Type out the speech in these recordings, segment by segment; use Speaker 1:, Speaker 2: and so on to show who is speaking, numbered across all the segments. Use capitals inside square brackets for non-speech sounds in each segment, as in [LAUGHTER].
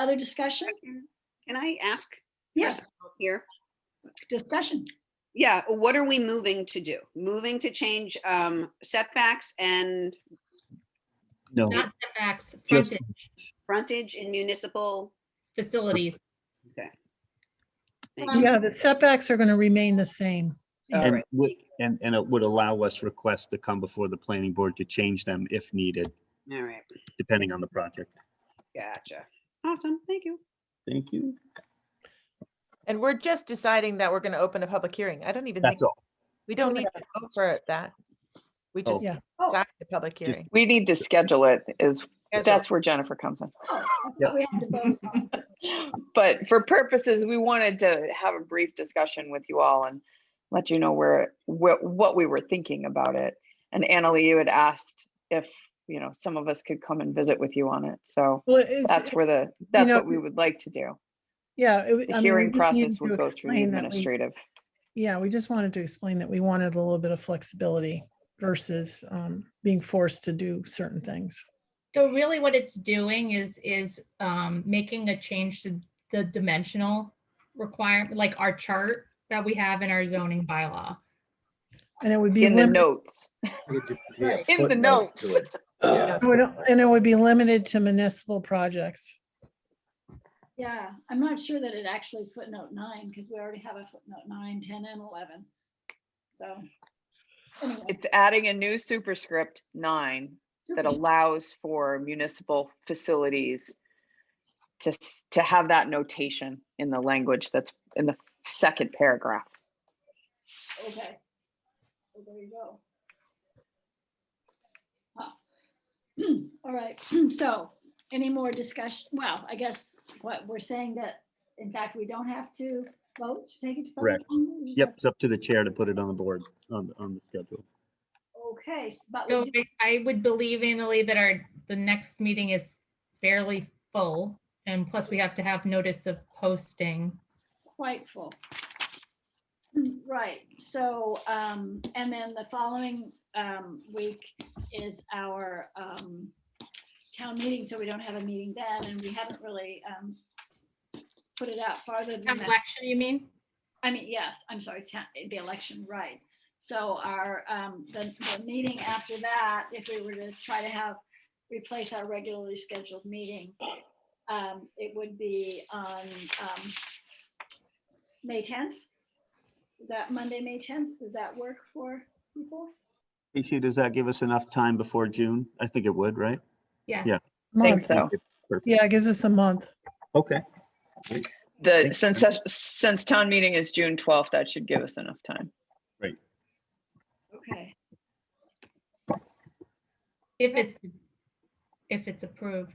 Speaker 1: Other discussion?
Speaker 2: Can I ask? for
Speaker 1: Yes,
Speaker 2: some help Here,
Speaker 1: discussion.
Speaker 2: yeah, what are we moving to do? Moving to change um setbacks and
Speaker 3: No,
Speaker 4: Not setbacks,
Speaker 3: just,
Speaker 4: frontage,
Speaker 2: frontage in municipal?
Speaker 4: facilities.
Speaker 2: thing?
Speaker 1: Um,
Speaker 5: Yeah, the setbacks are going to remain the same.
Speaker 2: All
Speaker 3: and
Speaker 2: right.
Speaker 3: would, and, and it would allow us requests to come before the planning board to change them if needed,
Speaker 2: All right,
Speaker 3: depending on the project.
Speaker 2: gotcha. Awesome, thank you.
Speaker 3: Thank you.
Speaker 6: And we're just deciding that we're going to open a public hearing. I don't even think,
Speaker 3: That's all.
Speaker 6: we don't need to vote for it that. We
Speaker 3: Oh.
Speaker 6: just
Speaker 5: Yeah.
Speaker 1: Oh.
Speaker 6: decide the public hearing.
Speaker 7: We need to schedule it is,
Speaker 6: Schedule.
Speaker 7: that's where Jennifer comes in.
Speaker 1: Oh, I thought we had to vote. on-
Speaker 7: [LAUGHS] But for purposes, we wanted to have a brief discussion with you all and let you know where, what, what we were thinking about it. And Annalee, you had asked if, you know, some of us could come and visit with you on it. So
Speaker 5: Well, it's-
Speaker 7: that's where the, that's
Speaker 5: know,
Speaker 7: what we would like to do.
Speaker 5: Yeah. it- I
Speaker 7: The
Speaker 5: mean,
Speaker 7: hearing
Speaker 5: we just needed
Speaker 7: process
Speaker 5: to
Speaker 7: would go through the
Speaker 5: explain that we-
Speaker 7: administrative.
Speaker 5: Yeah, we just wanted to explain that we wanted a little bit of flexibility versus um, being forced to do certain things.
Speaker 4: So really what it's doing is, is um, making a change to the dimensional requirement, like our chart that we have in our zoning bylaw.
Speaker 5: And it would be.
Speaker 7: In the
Speaker 5: lim-
Speaker 7: notes, in the notes.
Speaker 5: it would- And it would be limited to municipal projects.
Speaker 1: Yeah, I'm not sure that it actually is footnote nine because we already have a footnote nine, 10 and 11. So. anyway,
Speaker 7: It's adding a new superscript nine that
Speaker 1: super-
Speaker 7: allows for municipal facilities to, s- to have that notation in the language that's in the second paragraph.
Speaker 1: Okay. Well, There you go. Huh. [CLEARS THROAT] All right, [CLEARS THROAT] so any more discussion? Well, I guess what we're saying that, in fact, we don't have to vote, to take it to public.
Speaker 3: Correct.
Speaker 1: hearing, we just
Speaker 3: Yep,
Speaker 1: have-
Speaker 3: it's up to the chair to put it on the board, on, the- on the schedule.
Speaker 1: Okay, s- but we
Speaker 4: So
Speaker 1: do-
Speaker 4: I- I would believe, Annalee, that our, the next meeting is fairly full. And plus we have to have notice of posting.
Speaker 1: quite full. [CLEARS THROAT] Right, so, um, and then the following, um, week is our, um, town meeting, so we don't have a meeting then, and we haven't really, um, put it out farther than that.
Speaker 4: Election, you mean?
Speaker 1: I mean, yes, I'm sorry, ta- the election, right. So our, um, the, the meeting after that, if we were to try to have, replace our regularly scheduled meeting, um, it would be on, um, May tenth? Is that Monday, May tenth? Does that work for people?
Speaker 3: Casey, does that give us enough time before June? I think it would, right?
Speaker 4: Yes.
Speaker 3: Yeah.
Speaker 7: Think
Speaker 5: Month.
Speaker 7: so.
Speaker 3: Perfect.
Speaker 5: Yeah, it gives us a month. [LAUGHS]
Speaker 3: Okay,
Speaker 7: The,
Speaker 3: Makes
Speaker 7: since,
Speaker 3: sense.
Speaker 7: that- since town meeting is June twelfth, that should give us enough time.
Speaker 1: Okay,
Speaker 4: If it's, if it's approved.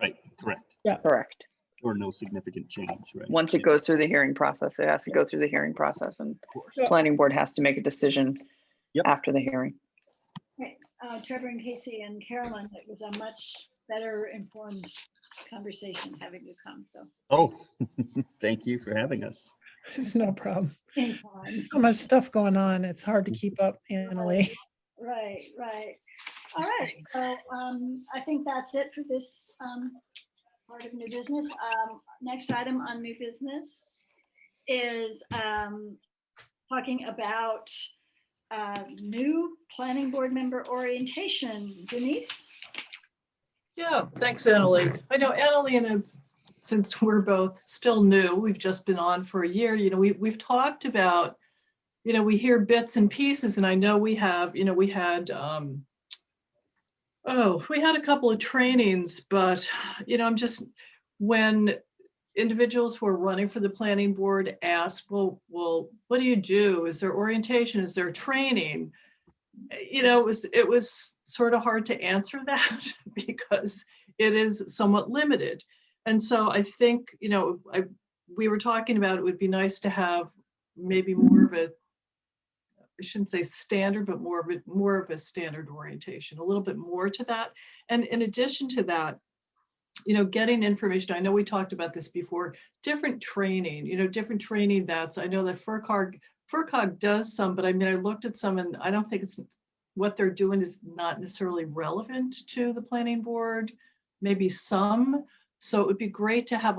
Speaker 3: right, correct.
Speaker 7: Correct.
Speaker 3: Or no significant change, right?
Speaker 7: Once it goes through the hearing process, it has to go through the hearing process and
Speaker 3: Of course.
Speaker 7: planning board has to make a decision
Speaker 3: Yep.
Speaker 7: after the hearing.
Speaker 1: uh, Trevor and Casey and Carolyn, it was a much better informed conversation having you come, so.
Speaker 3: Oh, [LAUGHS] thank you for having us.
Speaker 5: This is no problem.
Speaker 1: in time.
Speaker 5: So much stuff going on. It's hard to keep up, Annalee.
Speaker 1: Right, right. All
Speaker 7: Those
Speaker 1: right,
Speaker 7: things.
Speaker 1: so um, I think that's it for this um, part of new business. Um, Next item on new business is um, talking about uh, new planning board member orientation. Denise?
Speaker 8: Yeah, thanks, Annalee. I know Annalee and I've, since we're both still new, we've just been on for a year, you know, we, we've talked about, you know, we hear bits and pieces and I know we have, you know, we had, um, oh, we had a couple of trainings, but, you know, I'm just, when individuals who are running for the planning board ask, well, well, what do you do? Is there orientation? Is there training? you know, it was, it was sort of hard to answer [LAUGHS] that because it is somewhat limited. And so I think, you know, I, we were talking about it would be nice to have maybe more of a, I shouldn't say standard, but more of a, more of a standard orientation, a little bit more to that. And in addition to that, you know, getting information, I know we talked about this before, different training, you know, different training that's, I know that FERCog FERCog does some, but I mean, I looked at some and I don't think it's, what they're doing is not necessarily relevant to the planning board. Maybe some, So it would be great to have a